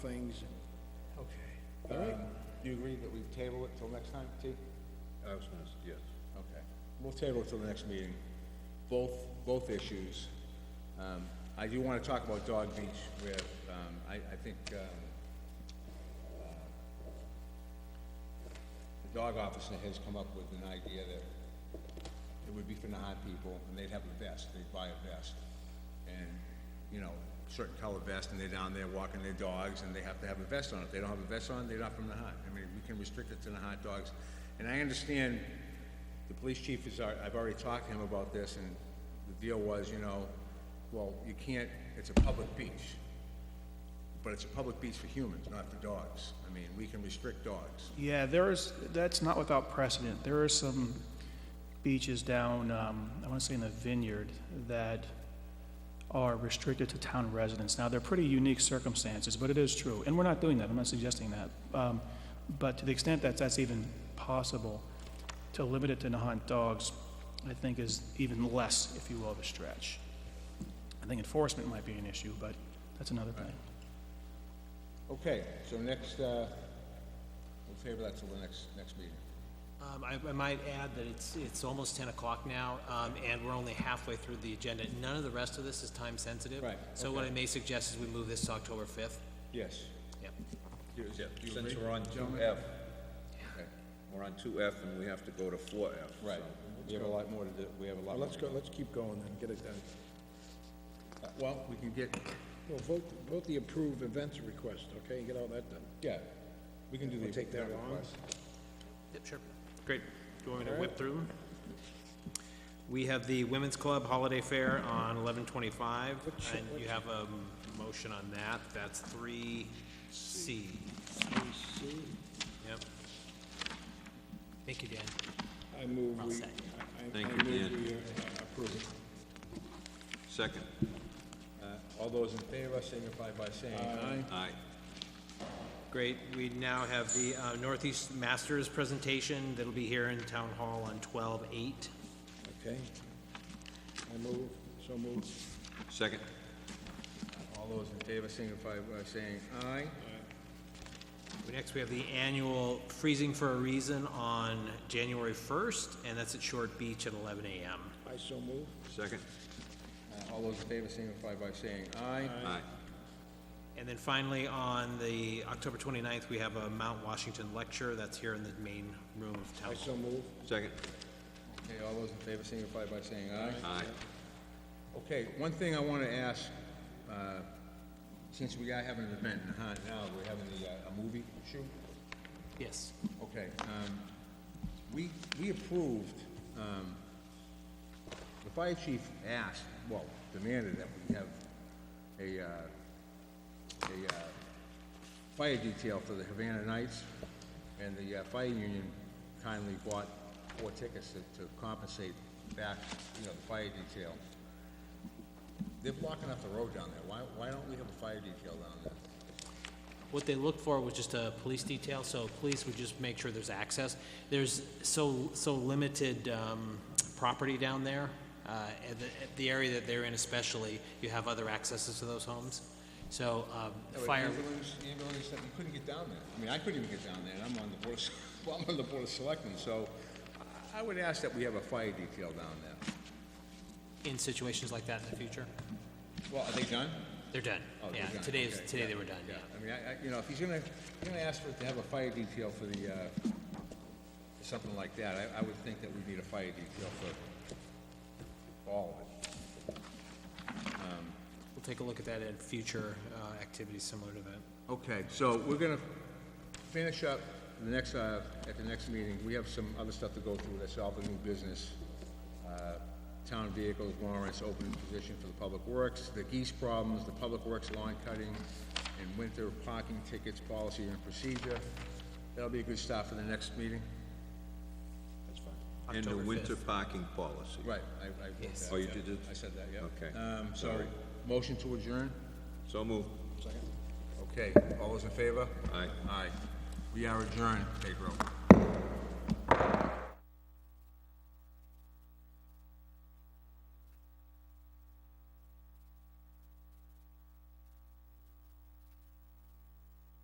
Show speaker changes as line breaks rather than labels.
things,
Okay.
all right?
You agree that we table it till next time, T?
I was gonna, s- yes.
Okay. We'll table it till the next meeting, both, both issues. Um, I do wanna talk about Dog Beach where, um, I, I think, um, uh, the dog officer has come up with an idea that it would be for Nahat people, and they'd have a vest, they'd buy a vest. And, you know, certain color vest, and they're down there walking their dogs, and they have to have a vest on. If they don't have a vest on, they're not from Nahat. I mean, we can restrict it to Nahat dogs. And I understand the police chief is, al- I've already talked to him about this, and the deal was, you know, well, you can't, it's a public beach. But it's a public beach for humans, not for dogs. I mean, we can restrict dogs.
Yeah, there is, that's not without precedent. There are some beaches down, um, I want to say in the Vineyard, that are restricted to town residents. Now, they're pretty unique circumstances, but it is true, and we're not doing that, I'm not suggesting that. Um, But to the extent that that's even possible, to limit it to Nahant dogs, I think is even less, if you will, of a stretch. I think enforcement might be an issue, but that's another thing.
Okay, so next, uh, we'll table that till the next, next meeting.
Um, I, I might add that it's, it's almost ten o'clock now, um, and we're only halfway through the agenda. None of the rest of this is time sensitive.
Right,
So what I may suggest is we move this to October fifth.
Yes.
Yep.
Do you- do you
Since
agree?
we're on two F, we're on two F and we have to go to four F.
Right, we have a lot more to do, we have a lot more.
Let's go, let's keep going then, get it done.
Uh, Well, we can get,
Well, vote, vote the approved events request, okay, and get all that done.
yeah, we can do the.
We'll take that long.
request.
Yep, sure. Great. Do you want me to whip through them? We have the Women's Club Holiday Fair on eleven twenty-five, and you have a m- motion on that. That's three C. Yep. Thank you, Dan.
I move
I'll
we,
second.
I- I, I
Thank you,
move
Dan.
we uh, approve it.
Second.
Uh, All those in favor signify by saying aye.
Aye.
Great, we now have the uh, Northeast Masters presentation that'll be here in Town Hall on twelve eight.
Okay. I move, so move.
Second.
All those in favor signify by saying aye.
Next, we have the annual Freezing for a Reason on January first, and that's at Short Beach at eleven AM.
I so move.
Second.
Uh, All those in favor signify by saying aye.
Aye.
And then finally, on the October 29th, we have a Mount Washington lecture that's here in the main room of Town
I
Hall.
so move.
Second.
Okay, all those in favor signify by saying aye.
Aye.
Okay, one thing I want to ask, uh, since we are having an event in Nahat now, we're having the, uh, a movie shoot.
Yes.
Okay, um, we, we approved, um, the fire chief asked, well, demanded that we have a, uh, a, uh, fire detail for the Havana Nights, and the, uh, fire union kindly bought four tickets to, to compensate back, you know, the fire detail. They're blocking up the road down there, why, why don't we have a fire detail down there?
What they looked for was just a police detail, so police would just make sure there's access. There's so, so limited um, property down there, uh, and the, the area that they're in especially, you have other accesses to those homes. So um,
There were
fire,
Ambulance, ambulance, that we couldn't get down there. I mean, I couldn't even get down there, and I'm on the board, of- well, I'm on the board of selectmen, so I- I would ask that we have a fire detail down there.
in situations like that in the future,
Well, are they done?
they're done.
Oh, they're
Yeah,
done.
today is,
Okay,
today they were done, yeah.
Yeah, I mean, I, I, you know, if he's gonna, if you're gonna ask for, to have a fire detail for the, uh, for something like that, I, I would think that we need a fire detail for all of it.
We'll take a look at that in future uh, activities similar to that.
Okay, so we're gonna finish up the next, uh, at the next meeting. We have some other stuff to go through that's all the new business. Uh, town vehicles, warrants, open position for the public works, the geese problems, the public works lawn cutting, and winter parking tickets, policy and procedure. That'll be a good start for the next meeting.
And the
October
winter
5th.
parking policy.
Right, I, I wrote
Yes.
that.
Oh, you did it?
I said that, yeah.
Okay.
Um, so, motion to adjourn?
So moved.
Okay, all those in favor?
Aye.
Aye. We are adjourned, Pedro.